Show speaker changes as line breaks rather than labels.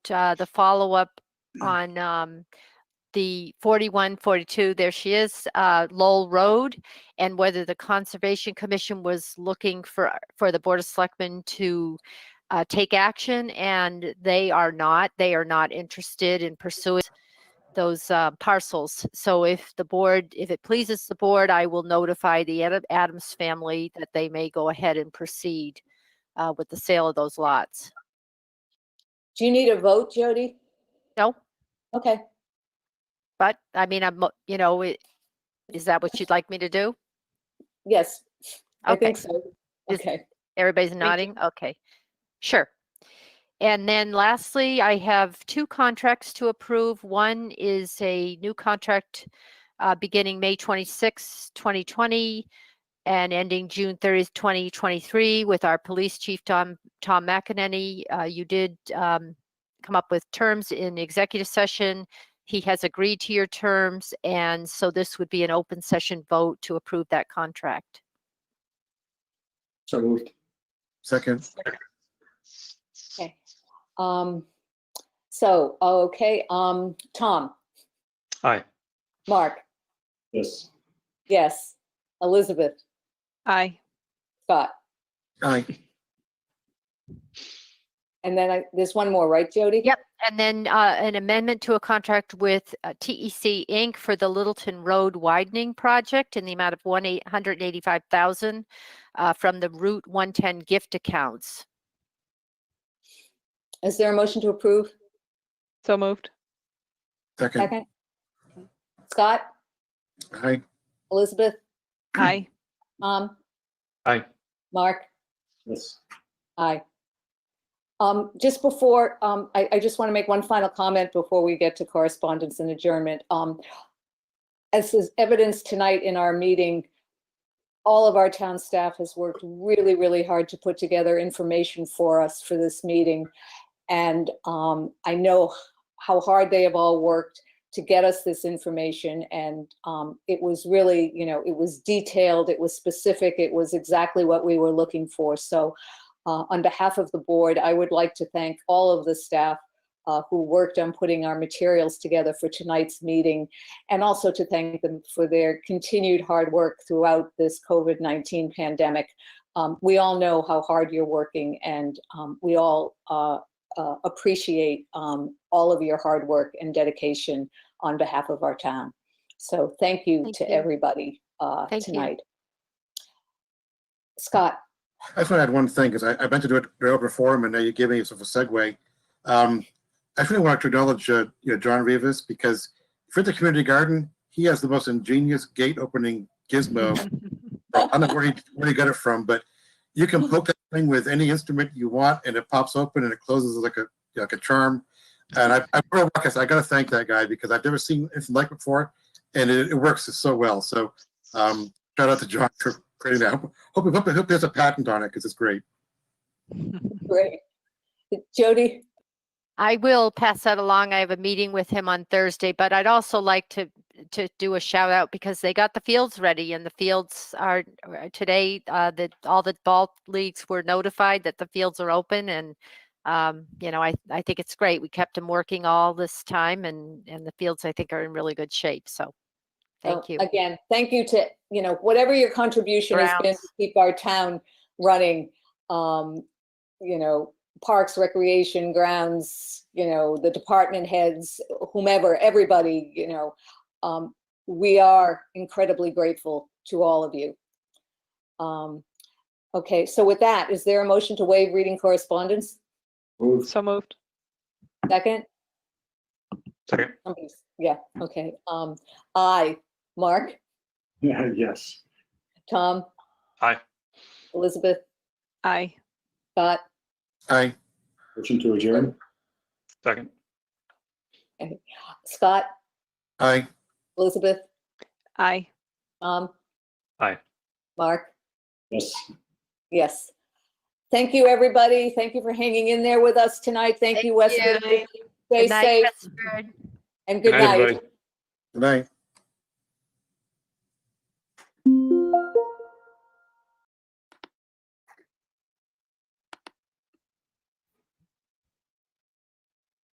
uh, the follow-up on um, the 41, 42, there she is, uh, Lowell Road, and whether the Conservation Commission was looking for, for the Board of Selectmen to uh, take action, and they are not. They are not interested in pursuing those uh, parcels. So if the board, if it pleases the board, I will notify the Ad- Adams family that they may go ahead and proceed uh, with the sale of those lots.
Do you need a vote, Jody?
No,
Okay,
but I mean, I'm, mo- you know, it- is that what you'd like me to do?
yes, I
Okay.
think so.
Is-
Okay,
Everybody's
you.
nodding? Okay, sure. And then lastly, I have two contracts to approve. One is a new contract uh, beginning May 26, 2020 and ending June 30th, 2023 with our police chief, Tom, Tom McEnany. Uh, You did um, come up with terms in executive session. He has agreed to your terms, and so this would be an open session vote to approve that contract.
So moved. Second.
okay. Um, so, okay, um, Tom,
Aye.
Mark,
Yes.
yes, Elizabeth,
Aye.
Scott,
Aye.
and then I, there's one more, right, Jody?
Yep. And then uh, an amendment to a contract with uh, TEC Inc. for the Littleton Road widening project in the amount of one eight hundred eighty-five thousand uh, from the Route one ten gift accounts.
Is there a motion to approve?
So moved.
Second.
Second? Scott,
Aye.
Elizabeth,
Aye.
Tom,
Aye.
Um, Mark?
Yes.
Aye. Um, Just before, um, I I just want to make one final comment before we get to correspondence and adjournment. Um, As is evidenced tonight in our meeting, all of our town staff has worked really, really hard to put together information for us for this meeting. And um, I know how hard they have all worked to get us this information. And um, it was really, you know, it was detailed, it was specific, it was exactly what we were looking for. So uh, On behalf of the board, I would like to thank all of the staff uh, who worked on putting our materials together for tonight's meeting, and also to thank them for their continued hard work throughout this COVID-19 pandemic. Um, We all know how hard you're working, and um, we all uh, uh, appreciate um, all of your hard work and dedication on behalf of our town. So thank you
Thank
to
you.
everybody uh,
Thank you.
tonight. Scott?
I just want to add one thing, because I, I meant to do it during open forum, and now you give me sort of a segue. Um, I really want to acknowledge, uh, you know, John Rivas, because for the community garden, he has the most ingenious gate opening gizmo. I don't know where he, where he got it from, but you can poke that thing with any instrument you want and it pops open and it closes like a, like a charm. And I, I, I gotta- I gotta thank that guy because I've never seen anything like it before and it, it works so well. So, um, shout out to John for creating that. Hope, hope, hope there's a patent on it because it's great.
Great. Jody?
I will pass that along. I have a meeting with him on Thursday, but I'd also like to to do a shout out because they got the fields ready and the fields are are today uh that all the ball leagues were notified that the fields are open and um you know I I think it's great. We kept them working all this time and and the fields I think are in really good shape. So
Well,
thank you.
uh, Again, thank you to, you know, whatever your contribution has been to
Grounds.
keep our town running. um, You know, parks, recreation, grounds, you know, the department heads, whomever, everybody, you know. um, We are incredibly grateful to all of you. Um, Okay, so with that, is there a motion to waive reading correspondence?
So moved.
Second?
Second.
Somebody's- Yeah, okay. Um, Aye. Mark?
Yes.
Tom?
Aye.
Elizabeth?
Aye.
Scott?
Aye.
Motion to adjourn?
Second.
Scott?
Aye.
Elizabeth?
Aye.
Tom?
Aye.
Mark?
Yes.
Yes. Thank you, everybody. Thank you for hanging in there with us tonight. Thank
Thank
you, Westwood.
you.
Stay
Good night,
safe
Christopher.
and good
Good night,
night.
everybody.
Good night.